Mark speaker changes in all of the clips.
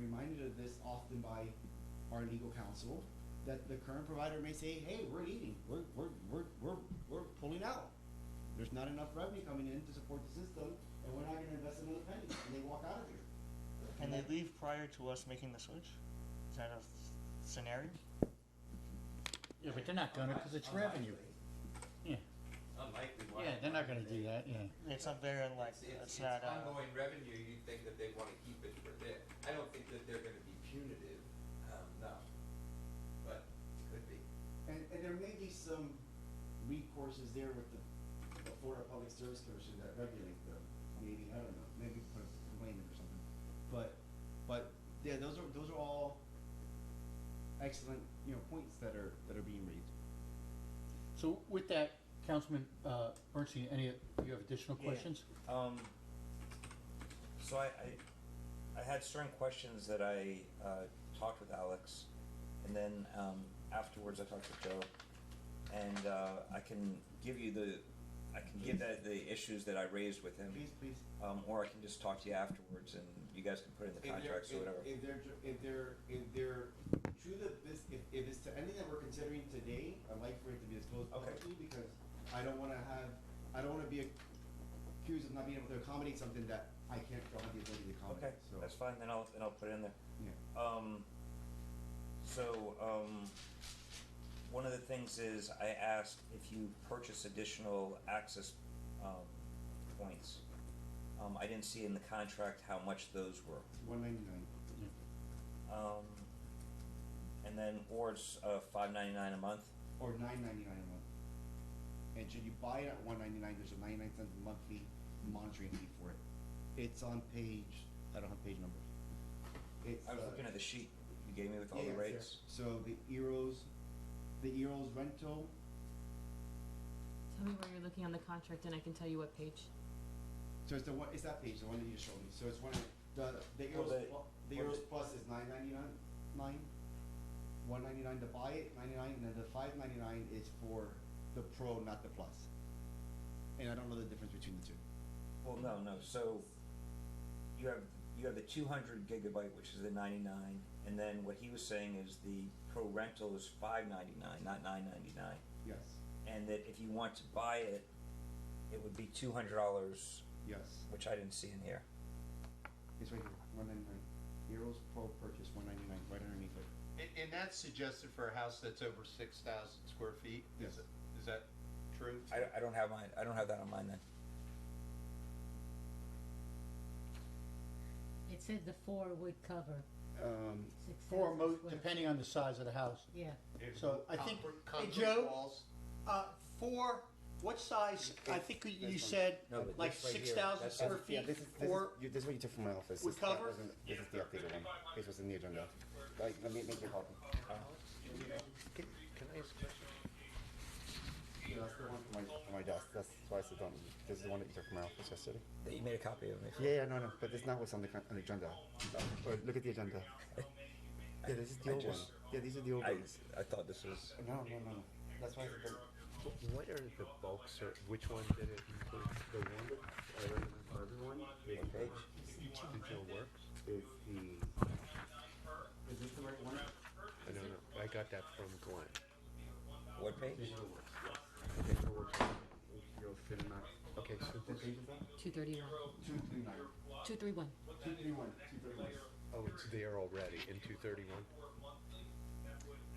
Speaker 1: reminded of this often by our legal counsel, that the current provider may say, hey, we're eating, we're, we're, we're, we're, we're pulling out. There's not enough revenue coming in to support the system, and we're not gonna invest another penny, and they walk out of here.
Speaker 2: Can they leave prior to us making the switch? Is that a scenario?
Speaker 3: Yeah, but they're not gonna, because it's
Speaker 1: Unlikely.
Speaker 3: revenue. Yeah,
Speaker 4: Unlikely. why-
Speaker 3: yeah, they're not gonna do that, yeah.
Speaker 2: It's not very
Speaker 4: It's,
Speaker 2: unlikely.
Speaker 4: it's,
Speaker 2: It's
Speaker 4: it's
Speaker 2: not, uh,
Speaker 4: ongoing revenue, you'd think that they wanna keep it for their, I don't think that they're gonna be punitive, um, no. But it could be.
Speaker 1: And, and there may be some recourses there with the, the Florida Public Service Commission that regulate them, maybe, I don't know, maybe put a complaint in or something. But, but, yeah, those are, those are all excellent, you know, points that are, that are being raised.
Speaker 3: So with that, Councilman, uh, Bernstein, any, you have additional
Speaker 5: Yeah.
Speaker 3: questions?
Speaker 5: Um, so I, I, I had certain questions that I uh, talked with Alex, and then um, afterwards I talked with Joe, and uh, I can give you the, I can give that the issues that I raised with him,
Speaker 1: Please, please.
Speaker 5: um, or I can just talk to you afterwards, and you guys can put in the
Speaker 1: If they're-
Speaker 5: contracts or
Speaker 1: if-
Speaker 5: whatever.
Speaker 1: If they're, ju- if they're, if they're, to the, this, if, if it's to anything that we're considering today, I'd like for it to be disclosed
Speaker 5: Okay.
Speaker 1: publicly, because I don't wanna have, I don't wanna be accused of not being able to accommodate something that I can't, don't have the ability to
Speaker 5: Okay,
Speaker 1: accommodate, so.
Speaker 5: that's fine. Then I'll then I'll put it in there.
Speaker 1: Yeah.
Speaker 5: Um, so, um, one of the things is I asked if you purchase additional access, um, points. Um, I didn't see in the contract how much those were.
Speaker 1: One ninety-nine,
Speaker 3: Yeah.
Speaker 5: Um, and then, or it's, uh, five ninety-nine a month.
Speaker 1: or nine ninety-nine a month. And should you buy it at one ninety-nine, there's a ninety-nine cent monthly monitoring fee for it. It's on page, I don't have page numbers. It's,
Speaker 5: I was
Speaker 1: uh,
Speaker 5: looking at the sheet you gave me with all the
Speaker 1: Yeah,
Speaker 5: rates.
Speaker 1: So the Eros, the Eros rental,
Speaker 6: Tell me where you're looking on the contract and I can tell you what page.
Speaker 1: so it's the one, it's that page, the one that you showed me, so it's one of, the, the Eros,
Speaker 5: they-
Speaker 1: plu- the
Speaker 5: well,
Speaker 1: Eros
Speaker 5: they-
Speaker 1: Plus is nine ninety-nine, nine? One ninety-nine to buy it, ninety-nine, and then the five ninety-nine is for the Pro, not the Plus. And I don't know the difference between the two.
Speaker 5: Well, no, no, so you have, you have the two hundred gigabyte, which is the ninety-nine, and then what he was saying is the pro rental is five ninety-nine, not nine ninety-nine.
Speaker 1: Yes,
Speaker 5: And that if you want to buy it, it would be two hundred dollars,
Speaker 1: yes,
Speaker 5: which I didn't see in here.
Speaker 1: it's right here, one ninety-nine, Eros Pro purchase, one ninety-nine, right underneath it.
Speaker 7: And, and that's suggested for a house that's over six thousand square feet?
Speaker 1: Yes.
Speaker 7: Is it- Is that true?
Speaker 5: I, I don't have mine, I don't have that on mine then.
Speaker 8: It said the four would cover
Speaker 1: Um,
Speaker 8: six
Speaker 3: Four mo,
Speaker 8: thousand square.
Speaker 3: depending on the size of the house.
Speaker 8: Yeah,
Speaker 7: If
Speaker 3: So I think,
Speaker 7: concrete-
Speaker 3: hey,
Speaker 7: Concrete
Speaker 3: Joe,
Speaker 7: walls?
Speaker 3: uh, four, what size, I think you said,
Speaker 5: No, but
Speaker 3: like
Speaker 5: this right here,
Speaker 3: six thousand
Speaker 5: that's-
Speaker 3: square
Speaker 1: Yeah,
Speaker 3: feet,
Speaker 1: this is, this is,
Speaker 3: four,
Speaker 1: you- this is what you took from my office.
Speaker 3: With
Speaker 1: This- that
Speaker 3: cover?
Speaker 1: wasn't- This is the updated one. This was in the agenda. Like, let me make your copy.
Speaker 7: Can can I ask a question?
Speaker 1: Yeah, that's the one from my, from my desk. That's why I said don't. This is the one that you took from my office yesterday.
Speaker 5: That you made a copy of me.
Speaker 1: Yeah, yeah, no, no, but this is not what's on the, con- on the agenda. Or look at the agenda. Yeah, this is the
Speaker 5: I
Speaker 1: old one.
Speaker 5: just-
Speaker 1: Yeah, these are the old
Speaker 5: I,
Speaker 1: ones.
Speaker 5: I thought this was,
Speaker 1: No, no, no. That's why I said don't.
Speaker 9: What are the bulk ser, which one did it include? The one that I recommend for everyone, maybe
Speaker 5: what page?
Speaker 9: digital works?
Speaker 1: Is the, is this the right one?
Speaker 9: I don't know, I got that from Glenn.
Speaker 5: What page?
Speaker 9: Digital works. Digital works, you'll fit them out. Okay, so
Speaker 1: What
Speaker 9: this,
Speaker 1: page is that?
Speaker 6: Two thirty-one.
Speaker 1: Two three nine.
Speaker 6: Two three one.
Speaker 1: Two three one. Two three one.
Speaker 9: oh, it's there already in two thirty-one?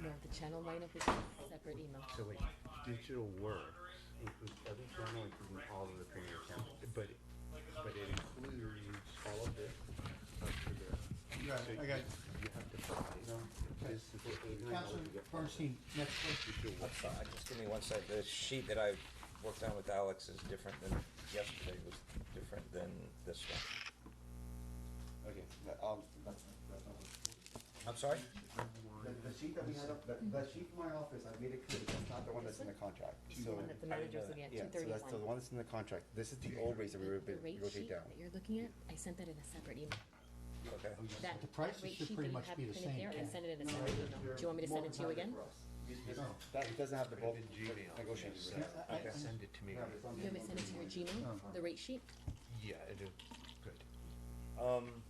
Speaker 6: No, the channel lineup is a separate email.
Speaker 9: So wait, digital works includes every, not only including all of the premium accounts, but, but it includes all of this up to there.
Speaker 1: Yeah,
Speaker 9: So
Speaker 1: I got.
Speaker 9: You have to buy, this is what eight nine oh,
Speaker 3: Councilman
Speaker 9: you get all this.
Speaker 3: Bernstein, next question.
Speaker 9: Digital works.
Speaker 5: I'm sorry, just give me one sec. The sheet that I worked on with Alex is different than yesterday, was different than this one.
Speaker 1: Okay, that, um, that's, that's not what.
Speaker 5: I'm sorry?
Speaker 1: The, the sheet that we had up, the, the sheet from my office, I made it clear, that's not the one that's in the contract,
Speaker 6: The
Speaker 1: so.
Speaker 6: one that the
Speaker 5: I didn't know
Speaker 6: manager's
Speaker 5: that.
Speaker 6: looking at,
Speaker 1: Yeah,
Speaker 6: two
Speaker 1: so that's the
Speaker 6: thirty-one.
Speaker 1: one that's in the contract, this is the old rates that we
Speaker 6: The
Speaker 1: rotate,
Speaker 6: rate
Speaker 1: rotate
Speaker 6: sheet
Speaker 1: down.
Speaker 6: that you're looking at, I sent that in a separate email.
Speaker 5: Okay.
Speaker 6: That
Speaker 3: The prices
Speaker 6: rate
Speaker 3: should
Speaker 6: sheet
Speaker 3: pretty
Speaker 6: that you
Speaker 3: much
Speaker 6: have
Speaker 3: be the
Speaker 6: printed
Speaker 3: same,
Speaker 6: there, I
Speaker 3: Ken.
Speaker 6: sent it in a separate email. Do you want me to send it to you again?
Speaker 1: That, it doesn't have the bulk
Speaker 9: in Gmail.
Speaker 1: negotiated
Speaker 9: Yes,
Speaker 1: rate.
Speaker 9: uh, I can Send it to me.
Speaker 1: Yeah, but it's on
Speaker 6: You
Speaker 1: the-
Speaker 6: want me to send it to your Gmail, the rate sheet?
Speaker 9: Yeah, I do. Good.
Speaker 5: Um,